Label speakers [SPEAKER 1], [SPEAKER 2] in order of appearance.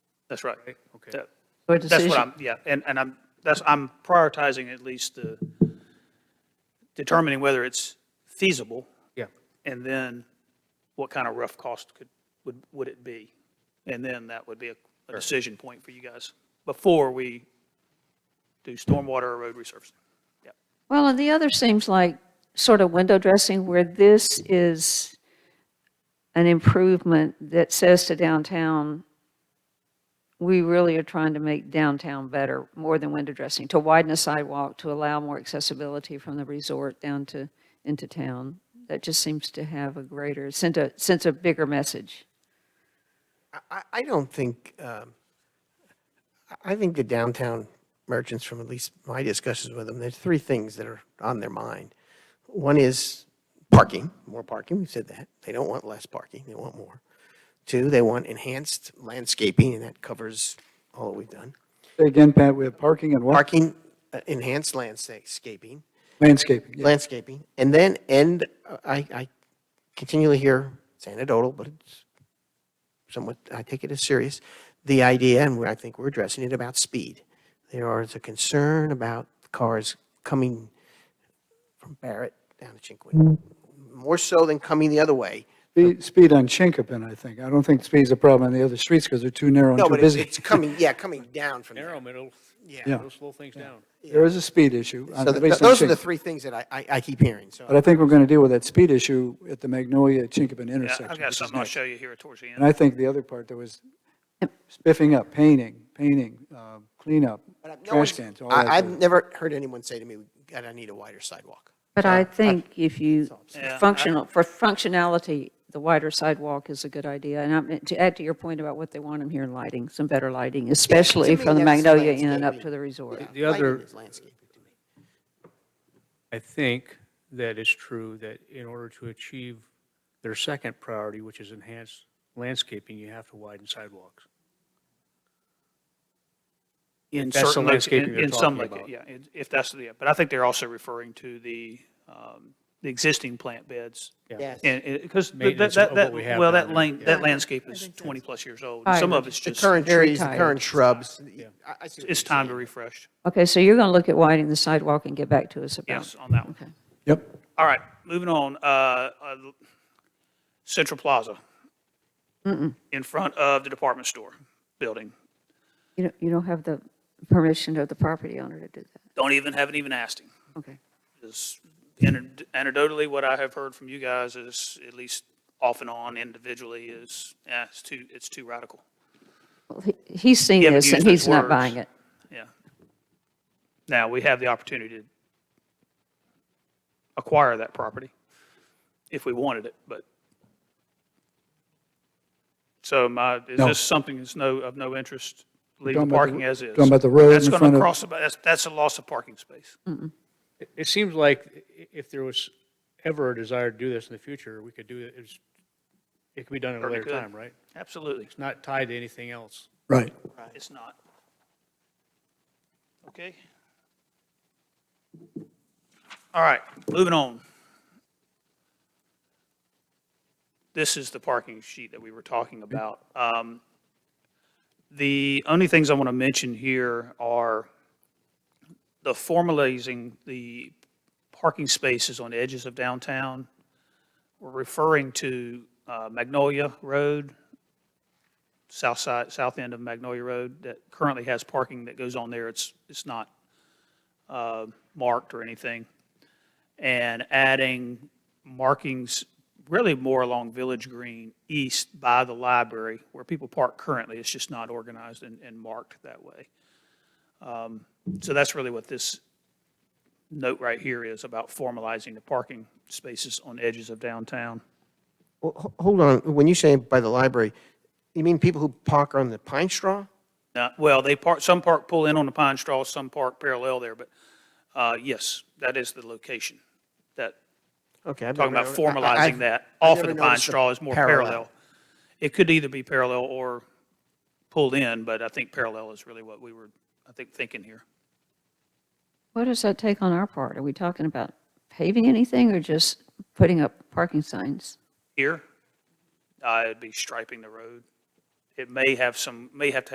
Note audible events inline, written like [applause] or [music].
[SPEAKER 1] That's right.
[SPEAKER 2] right? Okay.
[SPEAKER 1] That-
[SPEAKER 3] Or
[SPEAKER 1] That's what
[SPEAKER 3] decision,
[SPEAKER 1] I'm, yeah, and, and I'm, that's, I'm prioritizing at least the, determining whether it's feasible,
[SPEAKER 2] Yeah,
[SPEAKER 1] and then what kind of rough cost could, would, would it be? And then that would be a, a decision point for you guys, before we do stormwater or road resurfacing. Yeah,
[SPEAKER 3] well, and the other seems like sort of window dressing where this is an improvement that says to downtown, we really are trying to make downtown better, more than window dressing, to widen a sidewalk, to allow more accessibility from the resort down to, into town. That just seems to have a greater, sent a, sends a bigger message.
[SPEAKER 4] I, I don't think, um, I- I think the downtown merchants, from at least my discussions with them, there's three things that are on their mind. One is parking, more parking, we've said that. They don't want less parking, they want more. Two, they want enhanced landscaping, and that covers all that we've done.
[SPEAKER 5] Say Again, Pat, we have parking and what?
[SPEAKER 4] Parking, uh, enhanced landscaping,
[SPEAKER 5] Landscaping, yeah.
[SPEAKER 4] landscaping, and then, and uh, I, I continually hear, it's anecdotal, but it's somewhat, I take it as serious, the idea, and I think we're addressing it, about speed. There is a concern about cars coming from Barrett down to Chinquin,
[SPEAKER 5] Mm-hmm.
[SPEAKER 4] more so than coming the other way.
[SPEAKER 5] Speed- Speed on Chinkopin, I think. I don't think speed's a problem on the other streets because they're too narrow and
[SPEAKER 4] No,
[SPEAKER 5] too
[SPEAKER 4] but it's,
[SPEAKER 5] busy.
[SPEAKER 4] it's coming, yeah, coming down from there.
[SPEAKER 2] narrow, middle, yeah,
[SPEAKER 5] [laughs] Yeah.
[SPEAKER 2] it'll slow things down.
[SPEAKER 5] There is a speed issue on-
[SPEAKER 4] So th- th-
[SPEAKER 5] based on
[SPEAKER 4] those are the
[SPEAKER 5] Chinkopin.
[SPEAKER 4] three things that I, I, I keep hearing, so.
[SPEAKER 5] But I think we're going to deal with that speed issue at the Magnolia Chinkopin
[SPEAKER 1] Yeah,
[SPEAKER 5] intersection.
[SPEAKER 1] I've
[SPEAKER 5] which
[SPEAKER 1] got
[SPEAKER 5] is
[SPEAKER 1] something I'll
[SPEAKER 5] next.
[SPEAKER 1] show you here towards the
[SPEAKER 5] And
[SPEAKER 1] end.
[SPEAKER 5] I think the other part that was spiffing up, painting, painting, uh, cleanup,
[SPEAKER 4] But I- no
[SPEAKER 5] trash
[SPEAKER 4] one's-
[SPEAKER 5] cans, all that.
[SPEAKER 4] I, I've
[SPEAKER 5] sort of-
[SPEAKER 4] never heard anyone say to me, God, I need a wider sidewalk.
[SPEAKER 3] But I think if you,
[SPEAKER 1] Yeah, I-
[SPEAKER 3] functional, for functionality, the wider sidewalk is a good idea. And I'm, to add to your point about what they want them here, lighting, some better lighting, especially
[SPEAKER 4] me,
[SPEAKER 3] from the
[SPEAKER 4] that's
[SPEAKER 3] Magnolia Inn and up
[SPEAKER 4] landscaping.
[SPEAKER 3] to the resort.
[SPEAKER 2] The other-
[SPEAKER 4] Lighting is landscaping to me.
[SPEAKER 2] I think that it's true that in order to achieve their second priority, which is enhanced landscaping, you have to widen sidewalks.
[SPEAKER 1] In
[SPEAKER 2] That's the
[SPEAKER 1] certain loca-
[SPEAKER 2] landscaping
[SPEAKER 1] in-
[SPEAKER 2] you're
[SPEAKER 1] in some
[SPEAKER 2] talking
[SPEAKER 1] loca-
[SPEAKER 2] about.
[SPEAKER 1] Yeah, in- if that's the, yeah, but I think they're also referring to the, um, the existing plant beds
[SPEAKER 4] Yes.
[SPEAKER 1] And, and, because that,
[SPEAKER 2] Maintenance
[SPEAKER 1] that,
[SPEAKER 2] of what
[SPEAKER 1] that-
[SPEAKER 2] we have
[SPEAKER 1] well,
[SPEAKER 2] down
[SPEAKER 1] that
[SPEAKER 2] there.
[SPEAKER 1] lane, that landscape is twenty-plus years old.
[SPEAKER 3] Tired.
[SPEAKER 1] Some of it's
[SPEAKER 4] The
[SPEAKER 1] just,
[SPEAKER 4] current
[SPEAKER 3] very
[SPEAKER 4] trees, the
[SPEAKER 3] tired.
[SPEAKER 4] current shrubs. I- I see what
[SPEAKER 1] it's
[SPEAKER 4] you're
[SPEAKER 1] time to
[SPEAKER 4] saying.
[SPEAKER 1] refresh.
[SPEAKER 3] Okay, so you're going to look at widening the sidewalk and get back to us about.
[SPEAKER 1] Yes, on that one.
[SPEAKER 3] Okay.
[SPEAKER 5] Yep.
[SPEAKER 1] All right, moving on, uh, uh, Central Plaza. In front of the department store building.
[SPEAKER 3] You don't, you don't have the permission of the property owner to do that.
[SPEAKER 1] Don't even, haven't even asked him.
[SPEAKER 3] Okay.
[SPEAKER 1] is aned- anecdotally, what I have heard from you guys is, at least off and on individually, is, yeah, it's too, it's too radical.
[SPEAKER 3] Well, he- He's seen
[SPEAKER 1] You haven't
[SPEAKER 3] this and
[SPEAKER 1] used those
[SPEAKER 3] he's not
[SPEAKER 1] words.
[SPEAKER 3] buying it.
[SPEAKER 1] Yeah. Now, we have the opportunity to acquire that property if we wanted it, but. So my, is
[SPEAKER 5] No.
[SPEAKER 1] this something that's no, of no interest, leave the
[SPEAKER 5] Talking about the-
[SPEAKER 1] parking as is?
[SPEAKER 5] talking about the road
[SPEAKER 1] That's
[SPEAKER 5] in
[SPEAKER 1] going
[SPEAKER 5] front
[SPEAKER 1] to
[SPEAKER 5] of-
[SPEAKER 1] cross, about- that's, that's a loss of parking space.
[SPEAKER 2] It- It seems like i- if there was ever a desire to do this in the future, we could do it, it's- it could be done at a
[SPEAKER 1] Certainly
[SPEAKER 2] later
[SPEAKER 1] could.
[SPEAKER 2] time, right?
[SPEAKER 1] Absolutely.
[SPEAKER 2] It's not tied to anything else.
[SPEAKER 5] Right.
[SPEAKER 1] It's not. Okay. All right, moving on. This is the parking sheet that we were talking about. Um, The only things I want to mention here are the formalizing the parking spaces on the edges of downtown. We're referring to uh, Magnolia Road, south side, south end of Magnolia Road that currently has parking that goes on there. It's, it's not uh, marked or anything. And adding markings really more along Village Green East by the library where people park currently. It's just not organized and, and marked that way. Um, So that's really what this note right here is about formalizing the parking spaces on edges of downtown.
[SPEAKER 4] Well, ho- hold on, when you say by the library, you mean people who park on the pine straw?
[SPEAKER 1] Uh, Well, they park, some park pull in on the pine straw, some park parallel there, but uh, yes, that is the location. That,
[SPEAKER 4] Okay. I've
[SPEAKER 1] talking
[SPEAKER 4] never
[SPEAKER 1] about
[SPEAKER 4] noti- I- I-
[SPEAKER 1] formalizing
[SPEAKER 4] I've-
[SPEAKER 1] that
[SPEAKER 4] I've
[SPEAKER 1] off of
[SPEAKER 4] never
[SPEAKER 1] the pine
[SPEAKER 4] noticed the
[SPEAKER 1] straw is more
[SPEAKER 4] parallel.
[SPEAKER 1] parallel. It could either be parallel or pulled in, but I think parallel is really what we were, I think, thinking here.
[SPEAKER 3] What does that take on our part? Are we talking about paving anything or just putting up parking signs?
[SPEAKER 1] Here, uh, it'd be striping the road. It may have some, may have to